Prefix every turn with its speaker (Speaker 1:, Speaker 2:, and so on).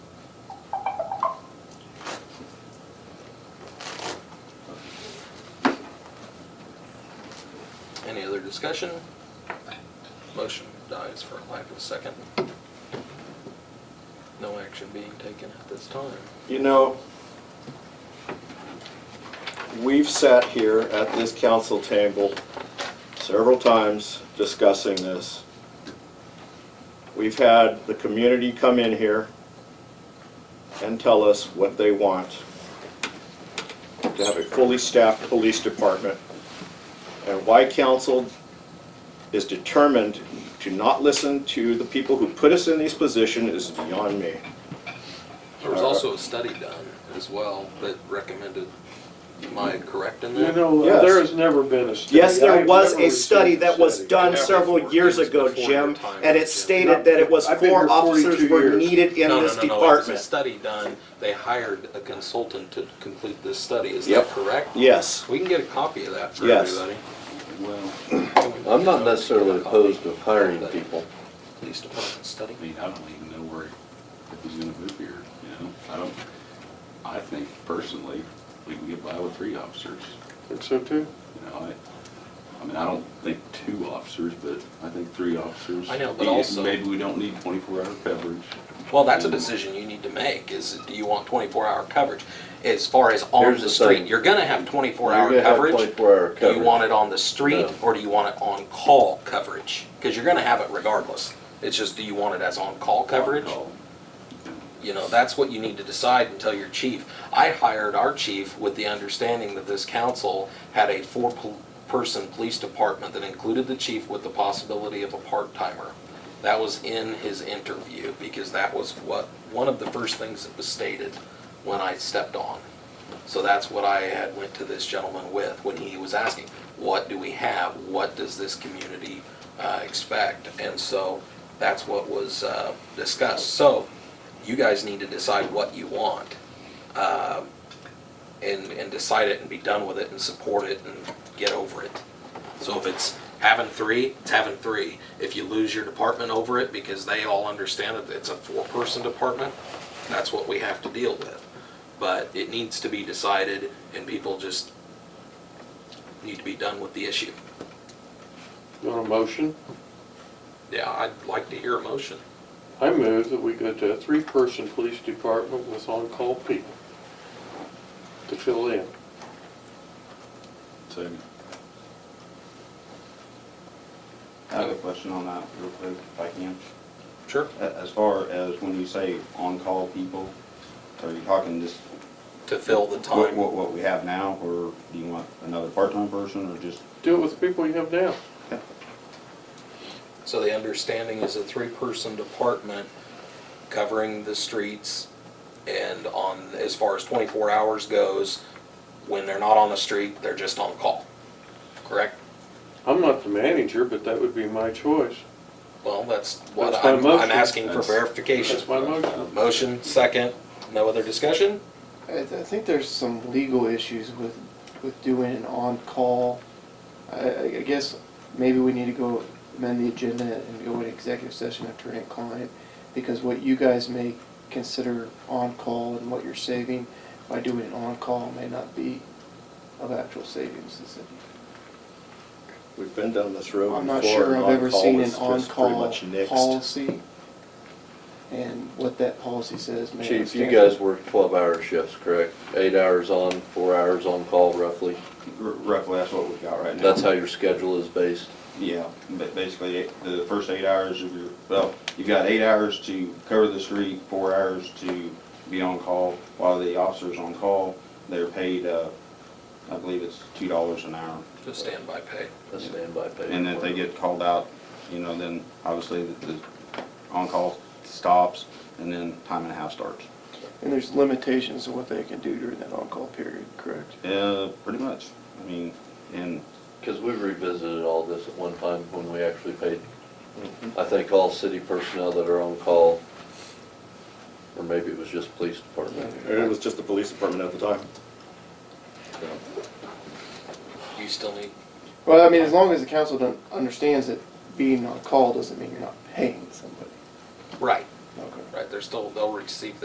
Speaker 1: discussion? Motion dies for lack of a second. No action being taken at this time.
Speaker 2: You know, we've sat here at this council table several times discussing this. We've had the community come in here and tell us what they want. To have a fully staffed police department. And why council is determined to not listen to the people who put us in these positions is beyond me.
Speaker 1: There was also a study done as well that recommended, am I correct in
Speaker 3: You
Speaker 1: that?
Speaker 3: know, uh,
Speaker 2: Yes.
Speaker 3: there has never been a study.
Speaker 2: Yes,
Speaker 3: I
Speaker 2: there
Speaker 3: have
Speaker 2: was
Speaker 3: never
Speaker 2: a study
Speaker 3: received a
Speaker 2: that was
Speaker 3: study.
Speaker 2: done
Speaker 1: Yeah,
Speaker 2: several
Speaker 1: before-
Speaker 2: years
Speaker 1: it was
Speaker 2: ago,
Speaker 1: before
Speaker 2: Jim,
Speaker 1: your time,
Speaker 2: and it
Speaker 1: Jim.
Speaker 2: stated that it was
Speaker 3: I've been here
Speaker 2: four officers
Speaker 3: 42
Speaker 2: were
Speaker 3: years.
Speaker 2: needed in
Speaker 1: No,
Speaker 2: this
Speaker 1: no, no, no, it was a
Speaker 2: department.
Speaker 1: study done. They hired a consultant to complete this study, is that
Speaker 2: Yep.
Speaker 1: correct?
Speaker 2: Yes,
Speaker 1: We can get a copy of that for
Speaker 2: Yes.
Speaker 1: everybody.
Speaker 4: Well,
Speaker 5: I'm not necessarily opposed to hiring people.
Speaker 1: Police department study.
Speaker 4: I mean, I don't even know where, if he's gonna move here, you know? I don't, I think personally, we can get by with three officers,
Speaker 3: Think so too?
Speaker 4: you know? I, I mean, I don't think two officers, but I think three officers.
Speaker 1: I know, but
Speaker 4: Maybe-
Speaker 1: also-
Speaker 4: Maybe we don't need twenty-four hour coverage.
Speaker 1: Well, that's a decision you need to make, is do you want twenty-four hour coverage? As far as on
Speaker 5: Here's
Speaker 1: the
Speaker 5: the
Speaker 1: street,
Speaker 5: thing.
Speaker 1: you're gonna have twenty-four
Speaker 5: You're
Speaker 1: hour
Speaker 5: gonna have
Speaker 1: coverage.
Speaker 5: 24-hour
Speaker 1: Do you
Speaker 5: coverage.
Speaker 1: want it on the street,
Speaker 5: No.
Speaker 1: or do you want it on-call coverage? Because you're gonna have it regardless. It's just, do you want it as on-call coverage?
Speaker 4: Call.
Speaker 1: You know, that's what you need to decide and tell your chief. I hired our chief with the understanding that this council had a four-person police department that included the chief with the possibility of a part-timer. That was in his interview, because that was what, one of the first things that was stated when I stepped on. So that's what I had went to this gentleman with, when he was asking, what do we have? What does this community uh, expect? And so that's what was uh, discussed. So you guys need to decide what you want. um, And, and decide it and be done with it and support it and get over it. So if it's having three, it's having three. If you lose your department over it because they all understand that it's a four-person department, that's what we have to deal with. But it needs to be decided and people just need to be done with the issue.
Speaker 3: You want a motion?
Speaker 1: Yeah, I'd like to hear a motion.
Speaker 3: I move that we go to a three-person police department with on-call people to fill in.
Speaker 4: Second.
Speaker 6: I have a question on that real quick, if I can.
Speaker 1: Sure.
Speaker 6: A- As far as when you say on-call people, are you talking just
Speaker 1: To fill the
Speaker 6: what,
Speaker 1: time.
Speaker 6: what what we have now, or do you want another part-time person, or just?
Speaker 3: Do it with the people you have now.
Speaker 1: So the understanding is a three-person department covering the streets and on, as far as 24 hours goes, when they're not on the street, they're just on call. Correct?
Speaker 3: I'm not the manager, but that would be my choice.
Speaker 1: Well, that's what
Speaker 3: That's my
Speaker 1: I'm, I'm
Speaker 3: motion.
Speaker 1: asking for
Speaker 4: That's-
Speaker 1: verification.
Speaker 3: That's my motion.
Speaker 1: Motion, second, no other discussion?
Speaker 7: I, I think there's some legal issues with, with doing an on-call. I, I I guess maybe we need to go amend the agenda and go in executive session after an client, because what you guys may consider on-call and what you're saving by doing an on-call may not be of actual savings. Is it?
Speaker 2: we've been down this road before.
Speaker 7: I'm not sure
Speaker 2: and
Speaker 7: I've ever
Speaker 2: on-call
Speaker 7: seen
Speaker 2: is just
Speaker 7: an
Speaker 2: pretty
Speaker 7: on-call
Speaker 2: much nixed.
Speaker 7: policy, and what that policy says may.
Speaker 5: Chief, you
Speaker 7: stand.
Speaker 5: guys work twelve-hour shifts, correct? Eight hours on, four hours on call roughly.
Speaker 6: r- Roughly, that's what we've got right now.
Speaker 5: That's how your schedule is based.
Speaker 6: Yeah, but basically, it- the first eight hours of your, well, you've got eight hours to cover the street, four hours to be on call. While the officer's on call, they're paid, uh, I believe it's two dollars an hour.
Speaker 1: To standby pay.
Speaker 5: That's standby pay.
Speaker 6: And if they get called out, you know, then obviously the, the on-call stops and then time and a half starts.
Speaker 7: And there's limitations to what they can do during that on-call period, correct?
Speaker 6: Uh, pretty much. I mean, and
Speaker 5: Because we revisited all this at one time when we actually paid, I think, all city personnel that are on call, or maybe it was just police department.
Speaker 2: And It was just the police department at the time.
Speaker 1: You still need,
Speaker 7: Well, I mean, as long as the council don't, understands that being on call doesn't mean you're not paying somebody.
Speaker 1: right,
Speaker 7: Okay.
Speaker 1: right, they're still, they'll receive